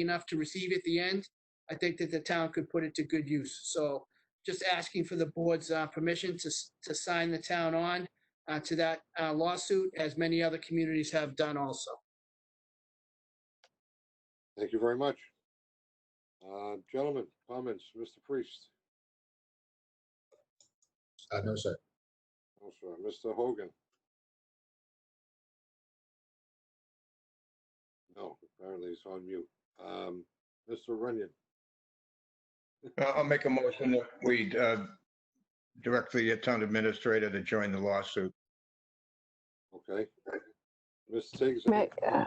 enough to receive at the end, I think that the town could put it to good use. So just asking for the board's uh, permission to, s- to sign the town on uh, to that uh, lawsuit, as many other communities have done also. Thank you very much. Uh, Gentlemen, comments, Mr. Priest, Uh, no, sir. also Mr. Hogan? No, apparently he's on mute. Um, Mr. Runyon, Uh, I'll make a motion that we uh, direct the town administrator to join the lawsuit. okay. Ms. Tiggs, May uh,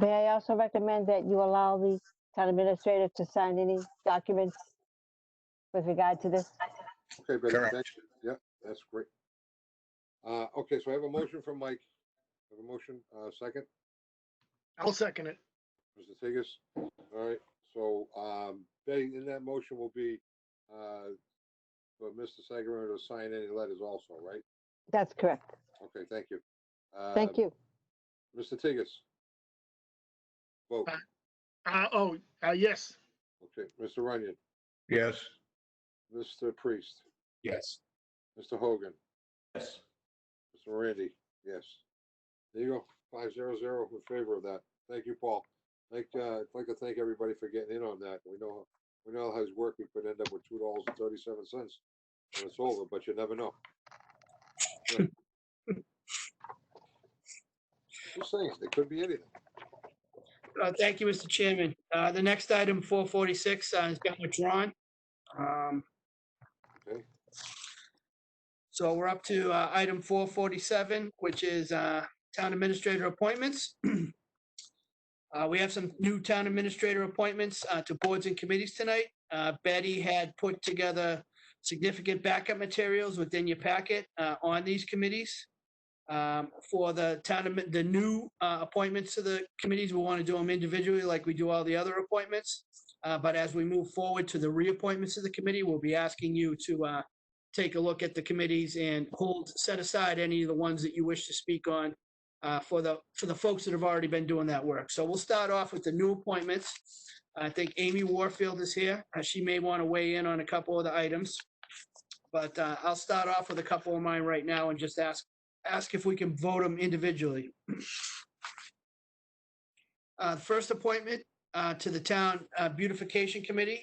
may I also recommend that you allow the town administrator to sign any documents with regard to this? okay, but Correct. thank you. yeah, that's great. Uh, Okay, so I have a motion from Mike. I Have a motion, uh, second? I'll second it. Mr. Tigas. All right, so, um, Betty, in that motion will be, uh, for Mr. Sagamore to sign any letters also, right? That's correct. Okay, thank you. Uh, Thank you. you. Mr. Tigas. Vote, Aye. Uh, oh, uh, yes, okay, Mr. Runyon, Yes, Mr. Priest, Yes. Mr. Hogan, Yes. Mr. Randy, yes. There you go, five zero zero in favor of that. Thank you, Paul. Like, uh, I'd like to thank everybody for getting in on that. We know, we know how his work, we could end up with two dollars and thirty-seven cents when it's over, but you never know. Right. Just saying, it could be anything. Uh, Thank you, Mr. Chairman. Uh, The next item, 446, uh, has been withdrawn. Um, Okay. So we're up to uh, item 447, which is uh, Town Administrator Appointments. Uh, We have some new Town Administrator appointments uh, to boards and committees tonight. Uh, Betty had put together significant backup materials within your packet uh, on these committees um, for the town, admin- the new uh, appointments to the committees, we want to do them individually like we do all the other appointments. Uh, But as we move forward to the reappointments to the committee, we'll be asking you to uh, take a look at the committees and hold, set aside any of the ones that you wish to speak on uh, for the, for the folks that have already been doing that work. So we'll start off with the new appointments. I think Amy Warfield is here. Uh, She may want to weigh in on a couple of the items. But uh, I'll start off with a couple of mine right now and just ask ask if we can vote them individually. Uh, the First appointment uh, to the Town uh, Beautification Committee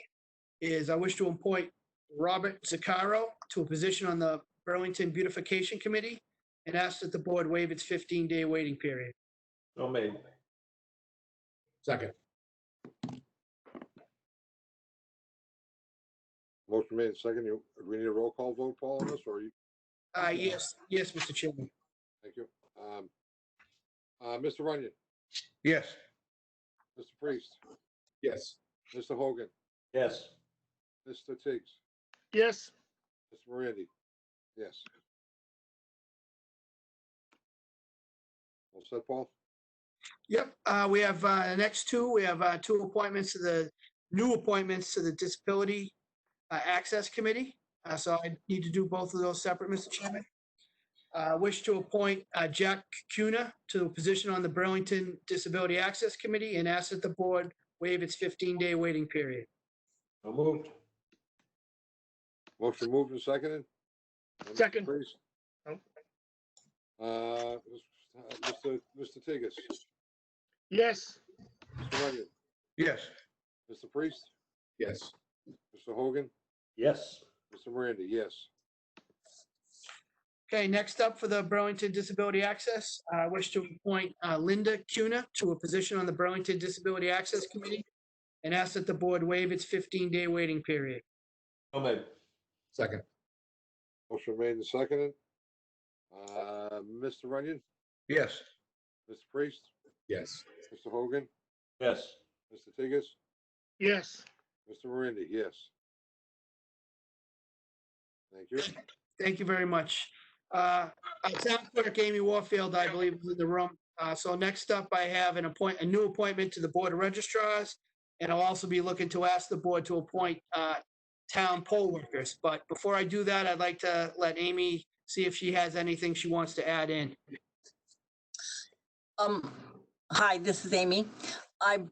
is I wish to appoint Robert Zaccaro to a position on the Burlington Beautification Committee and ask that the board waive its 15-day waiting period. So made. Second. Motion made, second, you, do we need a roll call vote, Paul, on this, or you, Uh, Yes, yes, Mr. Chairman. thank you. Um, Uh, Mr. Runyon, yes, Mr. Priest, Yes. Mr. Hogan, Yes. Mr. Tiggs, yes, Mr. Morandi, yes. All set, Paul? Yep, uh, we have, uh, the next two, we have, uh, two appointments to the, new appointments to the Disability uh, Access Committee. Uh, so I need to do both of those separate, Mr. Chairman. Uh, wish to appoint, uh, Jack Cuna to a position on the Burlington Disability Access Committee and ask that the board waive its fifteen-day waiting period. So moved. Motion moved and seconded? Uh, Mr. Second. Priest? Oh. Uh, Mr. Mr. Tigges, yes, Mr. Runyon, yes, Mr. Priest, Yes. Mr. Hogan, Yes. Mr. Morandi, yes. Okay, next up for the Burlington Disability Access, uh, I wish to appoint uh, Linda Cuna to a position on the Burlington Disability Access Committee and ask that the board waive its 15-day waiting period. So made. Second. Motion made and seconded. Uh, Mr. Runyon, yes, Mr. Priest, Yes. Mr. Hogan, Yes. Mr. Tigges, yes, Mr. Morandi, yes. Thank you. Thank you very much. Uh, uh, Town Clerk Amy Warfield, I believe, is in the room. Uh, So next up, I have an appoint, a new appointment to the Board of registrars, And I'll also be looking to ask the board to appoint uh, town poll workers. But before I do that, I'd like to let Amy see if she has anything she wants to add in. Um, hi, this is Amy. I